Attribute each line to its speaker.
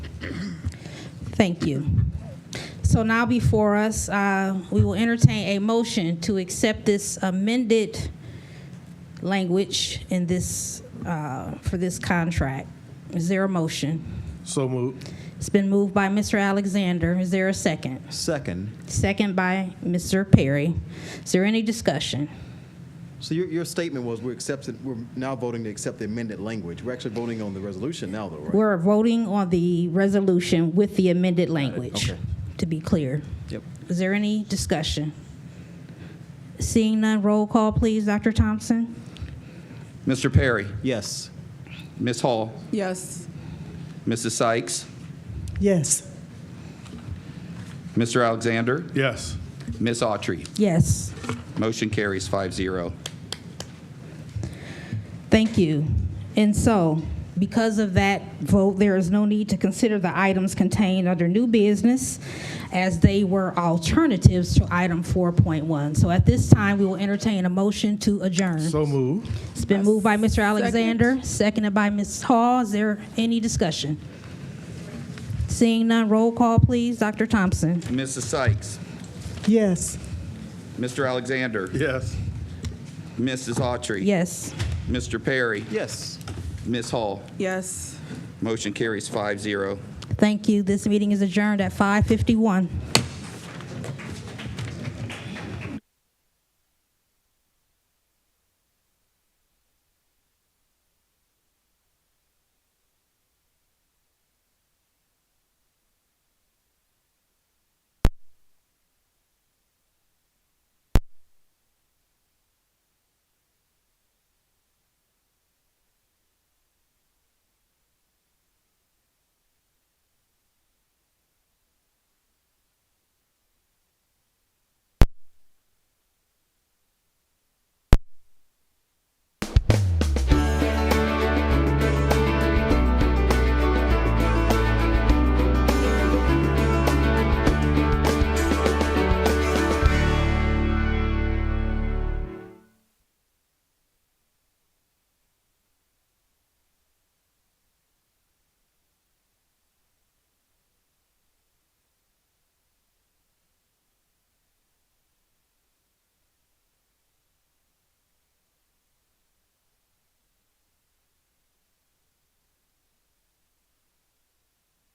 Speaker 1: Thank you. So now before us, uh, we will entertain a motion to accept this amended language in this, uh, for this contract. Is there a motion?
Speaker 2: So moved.
Speaker 1: It's been moved by Mr. Alexander. Is there a second?
Speaker 3: Second,
Speaker 1: Second by Mr. Perry. Is there any discussion?
Speaker 3: so your, your statement was we're accepting, we're now voting to accept the amended language. We're actually voting on the resolution now, though, right?
Speaker 1: We're voting on the resolution with the amended language,
Speaker 3: Okay.
Speaker 1: to be clear.
Speaker 3: Yep.
Speaker 1: Is there any discussion? Seeing none, roll call, please, Dr. Thompson?
Speaker 4: Mr. Perry,
Speaker 3: Yes.
Speaker 4: Ms. Hall,
Speaker 5: Yes.
Speaker 4: Mrs. Sykes,
Speaker 5: Yes.
Speaker 4: Mr. Alexander,
Speaker 2: Yes.
Speaker 4: Ms. Autry.
Speaker 1: Yes.
Speaker 4: Motion carries 5-0.
Speaker 1: Thank you. And so, because of that vote, there is no need to consider the items contained under new business as they were alternatives to item 4.1. So at this time, we will entertain a motion to adjourn.
Speaker 2: So moved.
Speaker 1: It's been moved by Mr. Alexander, seconded by Ms. Hall. Is there any discussion? Seeing none, roll call, please. Dr. Thompson?
Speaker 4: Mrs. Sykes,
Speaker 5: Yes.
Speaker 4: Mr. Alexander,
Speaker 2: Yes.
Speaker 4: Mrs. Autry.
Speaker 1: Yes.
Speaker 4: Mr. Perry,
Speaker 3: Yes.
Speaker 4: Ms. Hall.
Speaker 5: Yes.
Speaker 4: Motion carries 5-0.
Speaker 1: Thank you. This meeting is adjourned at 5:51.